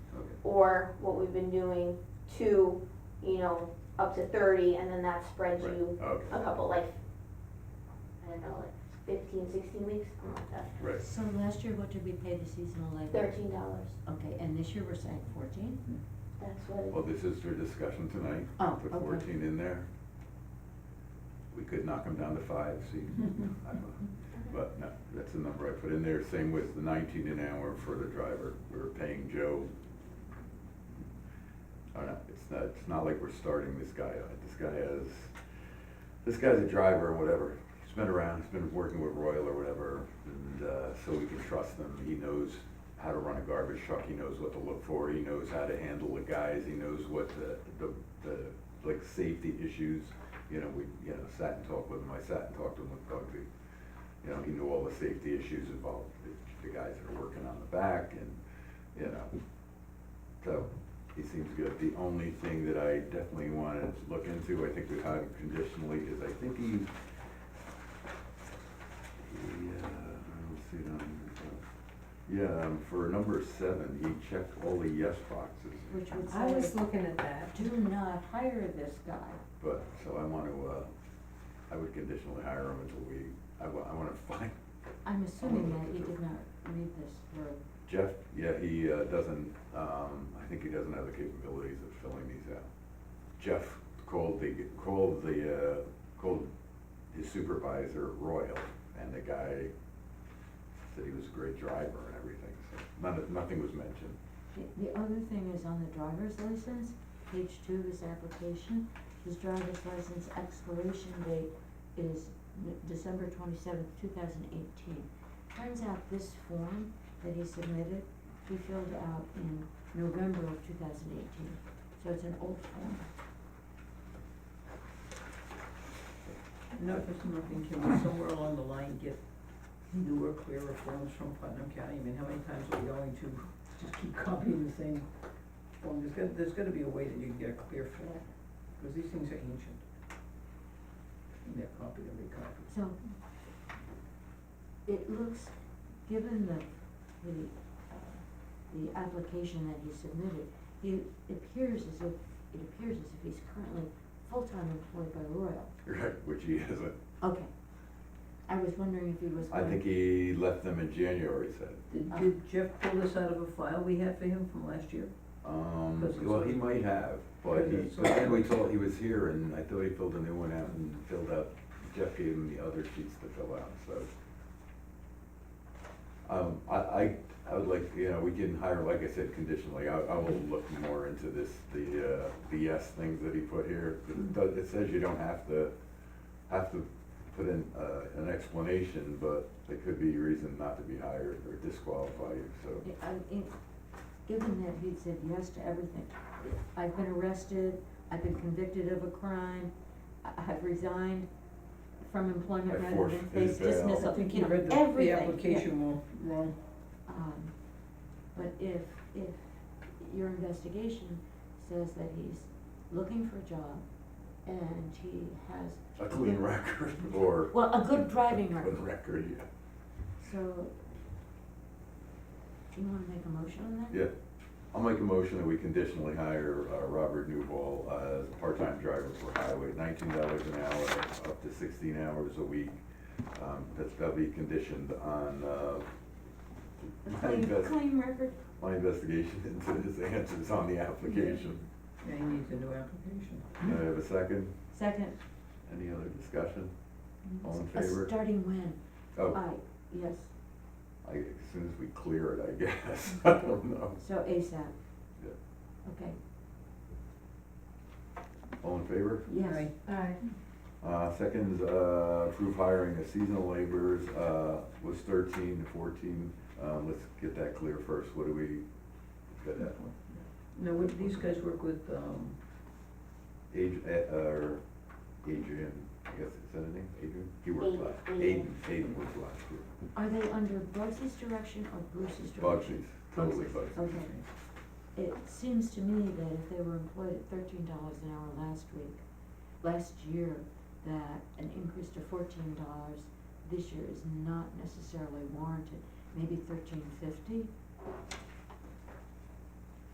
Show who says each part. Speaker 1: or what we've been doing, two, you know, up to thirty, and then that spreads
Speaker 2: Right.
Speaker 1: you
Speaker 2: Okay,
Speaker 1: a couple, like, I don't know, like fifteen, sixteen weeks, something like that,
Speaker 2: right.
Speaker 3: So last year, what did we pay the seasonal labor?
Speaker 1: thirteen dollars,
Speaker 3: Okay, and this year we're saying fourteen?
Speaker 1: that's what it
Speaker 2: Well, this is for discussion tonight.
Speaker 3: Oh,
Speaker 2: Put
Speaker 3: okay.
Speaker 2: fourteen in there. We could knock them down to five, see, I don't know. But no, that's the number I put in there. Same with the nineteen an hour for the driver. We We're paying Joe. I don't know, it's not, it's not like we're starting this guy out. This guy has, this guy's a driver or whatever. He's been around, he's been working with Royal or whatever, and, uh, so we can trust him. He knows how to run a garbage truck. He knows what to look for. He knows how to handle the guys. He knows what the, the, the, like, safety issues. You know, we, you know, sat and talked with him. I sat and talked to him with Doug too you know, he knew all the safety issues involved, the- the guys that are working on the back and, you know. So, he seems good. The only thing that I definitely wanna look into, I think we hired him conditionally, is I think he, he, uh, let's see, um, yeah, um, for number seven, he checked all the yes boxes,
Speaker 3: Which
Speaker 4: I
Speaker 3: would
Speaker 4: was
Speaker 3: say,
Speaker 4: looking at that.
Speaker 3: do not hire this guy.
Speaker 2: but, so I wanna, uh, I would conditionally hire him until we, I wa- I wanna find
Speaker 3: I'm assuming that you did not read this through.
Speaker 2: Jeff, yeah, he uh, doesn't, um, I think he doesn't have the capabilities of filling these out. Jeff called the, called the, uh, called his supervisor Royal, and the guy said he was a great driver and everything, so none, nothing was mentioned.
Speaker 3: The, the other thing is on the driver's license, page two of his application, his driver's license expiration date is N- December twenty-seventh, two thousand eighteen. Turns out this form that he submitted, he filled out in November of two thousand eighteen, so it's an old form.
Speaker 5: Enough is nothing, can we somewhere along the line get newer, clearer forms from Putnam County? I mean, how many times are we going to just keep copying the same form? There's got, there's gotta be a way that you can get a clear form, because these things are ancient. And they're copied and recopied.
Speaker 3: So, it looks, given the, the, uh, the application that he submitted, he appears as if, it appears as if he's currently full-time employed by Royal.
Speaker 2: Right. Which he isn't.
Speaker 3: Okay. I was wondering if he was
Speaker 2: I
Speaker 3: going.
Speaker 2: think he left them in January, he said.
Speaker 3: Uh.
Speaker 5: Did, did Jeff pull this out of a file we had for him from last year?
Speaker 2: Um,
Speaker 5: Because it's-
Speaker 2: well, he might have, but he,
Speaker 5: Because it's-
Speaker 2: but then we told, he was here and I thought he filled a new one out and filled out, Jeff gave him the other sheets to fill out, so. Um, I, I, I would like, you know, we can hire, like I said, conditionally, I, I will look more into this, the, uh, the yes things that he put here. 'cause it does, it says you don't have to, have to put in, uh, an explanation, but there could be reason not to be hired or disqualify you, so.
Speaker 3: eh, I, I- given that he said yes to everything, I've been arrested, I've been convicted of a crime, I- I've resigned from
Speaker 2: I
Speaker 3: employment rather
Speaker 2: forfeit
Speaker 3: than face
Speaker 2: his bail.
Speaker 3: dismissal,
Speaker 5: I think
Speaker 3: you
Speaker 5: you
Speaker 3: know,
Speaker 5: read
Speaker 3: everything,
Speaker 5: the, the
Speaker 3: yeah.
Speaker 5: application wrong, wrong.
Speaker 3: Um, but if, if your investigation says that he's looking for a job and he has,
Speaker 2: A clean record or.
Speaker 3: well, a good driving
Speaker 2: Good
Speaker 3: record,
Speaker 2: record, yeah.
Speaker 3: so. Do you wanna make a motion on that?
Speaker 2: Yeah. I'll make a motion that we conditionally hire uh, Robert Newball as a part-time driver for highway, nineteen dollars an hour, up to sixteen hours a week. Um, That's, that'll be conditioned on uh,
Speaker 3: A
Speaker 2: I think
Speaker 3: clean,
Speaker 2: that's-
Speaker 3: clean record,
Speaker 2: my investigation into his answers on the application.
Speaker 5: Yeah, he needs a new application.
Speaker 2: Do I have a second?
Speaker 3: second.
Speaker 2: Any other discussion? All in
Speaker 3: Uh,
Speaker 2: favor?
Speaker 3: Starting when?
Speaker 2: Oh,
Speaker 3: I, yes,
Speaker 2: I, as soon as we clear it, I guess. I don't know.
Speaker 3: so ASAP.
Speaker 2: Yeah.
Speaker 3: Okay,
Speaker 2: All in favor?
Speaker 3: yes,
Speaker 5: Aye.
Speaker 4: Aye.
Speaker 2: Uh, second, is, uh, approve hiring of seasonal laborers, uh, was thirteen to fourteen, um, let's get that clear first, what do we, got that,
Speaker 5: Now, would these guys work with, um,
Speaker 2: Age, uh, or Adrian, I guess, is that his name, Adrian? He worked
Speaker 1: Aiden,
Speaker 2: last, Aiden,
Speaker 1: Aiden.
Speaker 2: Aiden worked last year,
Speaker 3: are they under Bugsy's direction or Bruce's direction?
Speaker 2: Bugsy's, totally Bugsy's,
Speaker 3: Okay. It seems to me that if they were employed at thirteen dollars an hour last week, last year, that an increase to fourteen dollars this year is not necessarily warranted. Maybe thirteen fifty